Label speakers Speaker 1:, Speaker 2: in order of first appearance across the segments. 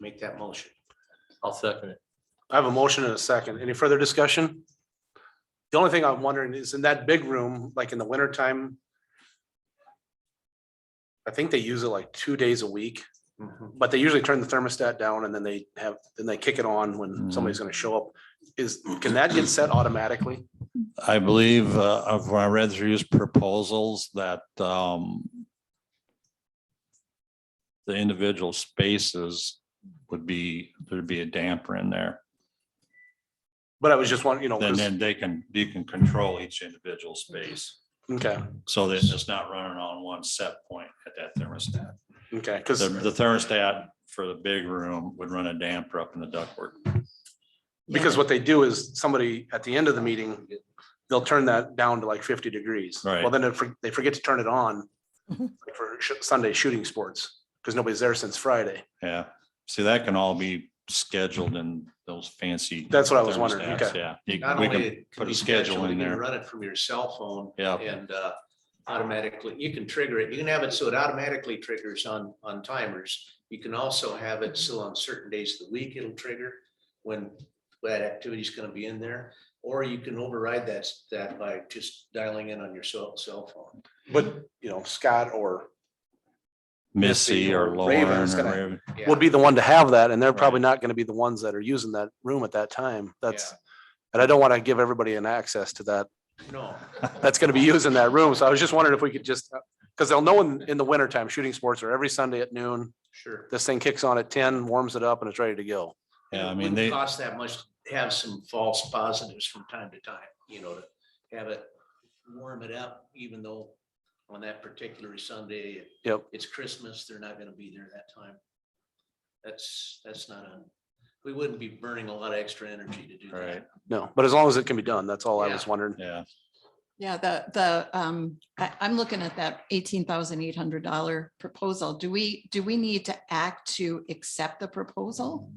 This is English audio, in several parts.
Speaker 1: make that motion.
Speaker 2: I'll second it.
Speaker 3: I have a motion and a second. Any further discussion? The only thing I'm wondering is in that big room, like in the winter time. I think they use it like two days a week, but they usually turn the thermostat down and then they have, then they kick it on
Speaker 4: Mm-hmm.
Speaker 3: when somebody's gonna show up. Is, can that get set automatically?
Speaker 4: I believe uh, of when I read through his proposals that um, the individual spaces would be, there'd be a damper in there.
Speaker 3: But I was just wondering, you know,
Speaker 4: Then
Speaker 3: Oh, 'cause-
Speaker 4: then they can, you can control each individual space.
Speaker 3: okay,
Speaker 4: So that it's not running on one set point at that thermostat.
Speaker 3: okay,
Speaker 4: The
Speaker 3: because,
Speaker 4: the thermostat for the big room would run a damper up in the ductwork.
Speaker 3: because what they do is somebody at the end of the meeting, they'll turn that down to like fifty degrees.
Speaker 4: Right.
Speaker 3: Well, then if they forget to turn it on like for sh- Sunday shooting sports, because nobody's there since Friday.
Speaker 4: Yeah, see, that can all be scheduled in those fancy.
Speaker 3: That's what I was wondering,
Speaker 4: thermostats,
Speaker 3: okay.
Speaker 4: Yeah. You-
Speaker 1: Not
Speaker 4: we
Speaker 1: only
Speaker 4: can-
Speaker 1: it can
Speaker 4: put a
Speaker 1: be
Speaker 4: schedule
Speaker 1: scheduled,
Speaker 4: in
Speaker 1: you can
Speaker 4: there.
Speaker 1: Run it from your cell phone.
Speaker 4: Yeah.
Speaker 1: And uh, automatically, you can trigger it. You can have it so it automatically triggers on, on timers. You can also have it so on certain days of the week, it'll trigger when that activity's gonna be in there. Or you can override that, that by just dialing in on your cell, cell phone.
Speaker 3: But, you know, Scott or
Speaker 4: Missy or Lauren
Speaker 3: Raven's
Speaker 4: or
Speaker 3: gonna-
Speaker 4: Raven.
Speaker 1: Yeah.
Speaker 3: would be the one to have that, and they're
Speaker 4: Right.
Speaker 3: probably not gonna be the ones that are using that room at that time. That's, and I don't wanna give everybody an access to that.
Speaker 1: No,
Speaker 3: That's gonna be using that room, so I was just wondering if we could just, cause they'll know in, in the winter time, shooting sports are every Sunday at noon.
Speaker 1: sure.
Speaker 3: This thing kicks on at ten, warms it up, and it's ready to go.
Speaker 4: Yeah, I
Speaker 1: It
Speaker 4: mean,
Speaker 1: wouldn't
Speaker 4: they,
Speaker 1: Cost that much, to have some false positives from time to time, you know, to have it warm it up, even though on that particular Sunday,
Speaker 3: Yep,
Speaker 1: it's Christmas, they're not gonna be there that time. That's, that's not a, we wouldn't be burning a lot of extra energy to do
Speaker 4: Right.
Speaker 1: that.
Speaker 3: no, but as long as it can be done, that's all I was
Speaker 1: Yeah.
Speaker 3: wondering.
Speaker 4: yeah,
Speaker 5: Yeah, the, the, um, I, I'm looking at that eighteen thousand eight hundred dollar proposal. Do we, do we need to act to accept the proposal?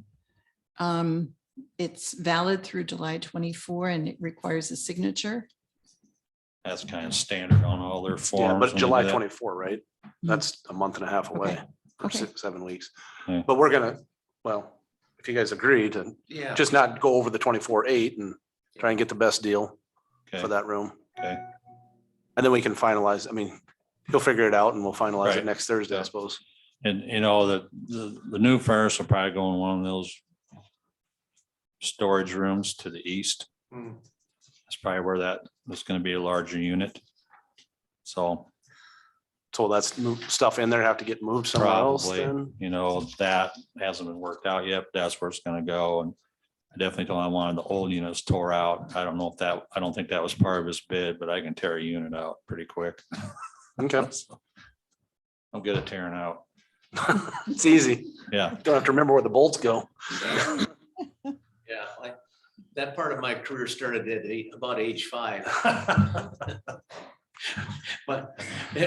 Speaker 5: Um, it's valid through July twenty-four and it requires a signature.
Speaker 4: that's kind of standard on all their
Speaker 3: Yeah,
Speaker 4: forms. when
Speaker 3: but
Speaker 4: they
Speaker 3: July
Speaker 4: do that.
Speaker 3: twenty-four, right? That's a month and a half away,
Speaker 5: Okay,
Speaker 3: or
Speaker 5: okay.
Speaker 3: six, seven weeks.
Speaker 4: Yeah.
Speaker 3: But we're gonna, well, if you guys agree to
Speaker 1: Yeah.
Speaker 3: just not go over the twenty-four eight and try and get the best deal
Speaker 4: Okay.
Speaker 3: for that room.
Speaker 4: Okay.
Speaker 3: And then we can finalize, I mean, he'll figure it out and we'll finalize it
Speaker 4: Right.
Speaker 3: next Thursday, I
Speaker 4: Yeah.
Speaker 3: suppose.
Speaker 4: And you know, the, the, the new furnace will probably go in one of those storage rooms to the east.
Speaker 1: Hmm.
Speaker 4: That's probably where that, that's gonna be a larger unit. So
Speaker 3: So that's mo- stuff in there have to get moved somewhere else
Speaker 4: Probably.
Speaker 3: then.
Speaker 4: you know, that hasn't been worked out yet, but that's where it's gonna go, and I definitely told him I wanted the old units tore out, I don't know if that, I don't think that was part of his bid, but I can tear a unit out pretty quick.
Speaker 3: Okay,
Speaker 4: I'm good at tearing out,
Speaker 3: it's easy.
Speaker 4: yeah,
Speaker 3: Don't have to remember where the bolts go.
Speaker 1: Yeah, like, that part of my career started at eight, about age five. But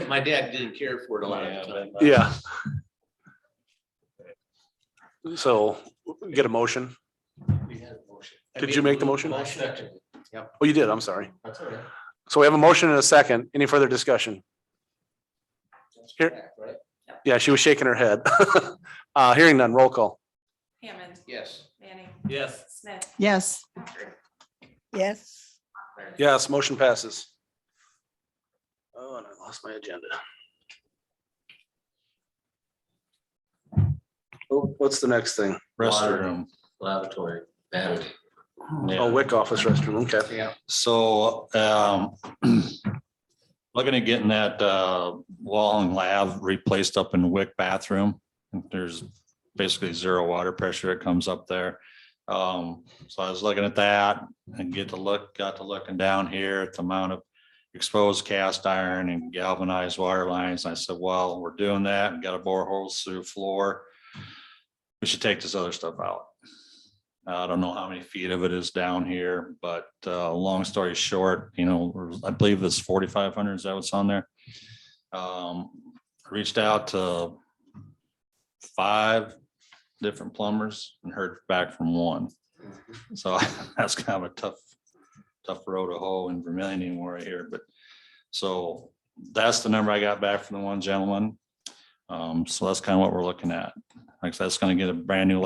Speaker 1: my dad didn't care for it a lot of the time.
Speaker 4: uh,
Speaker 3: Yeah. So get a motion.
Speaker 1: We had a motion.
Speaker 3: Did
Speaker 1: I
Speaker 3: you make the
Speaker 1: made a
Speaker 3: motion?
Speaker 1: Motion. Yep.
Speaker 3: Oh, you did. I'm sorry.
Speaker 1: That's all right.
Speaker 3: So we have a motion and a second. Any further discussion?
Speaker 1: That's
Speaker 3: Here.
Speaker 1: correct, Right?
Speaker 3: Yeah, she was shaking her head. Uh, hearing none, roll call.
Speaker 6: Hammond,
Speaker 1: Yes.
Speaker 6: Manning,
Speaker 1: Yes.
Speaker 6: Smith,
Speaker 5: Yes,
Speaker 6: Packard.
Speaker 7: Yes,
Speaker 6: Clark.
Speaker 3: Yes, motion passes. Oh, and I lost my agenda. Oh, What's the next thing?
Speaker 4: restroom.
Speaker 1: Lavatory. That.
Speaker 4: Yeah.
Speaker 3: Oh, WIC office restroom, okay.
Speaker 1: Yeah.
Speaker 4: So, um, looking at getting that, uh, wall and lav replaced up in Wick bathroom. There's basically zero water pressure that comes up there. Um, so I was looking at that and get to look, got to looking down here at the amount of exposed cast iron and galvanized water lines. I said, well, we're doing that, we got a borehole through the floor. We should take this other stuff out. Uh, I don't know how many feet of it is down here, but uh, long story short, you know, I believe it's forty-five hundred, is that what's on there? Um, reached out to five different plumbers and heard back from one. So that's kind of a tough, tough road to hoe in Vermillion anymore right here, but so that's the number I got back from the one gentleman. Um, so that's kind of what we're looking at. Like, I said, that's gonna get a brand new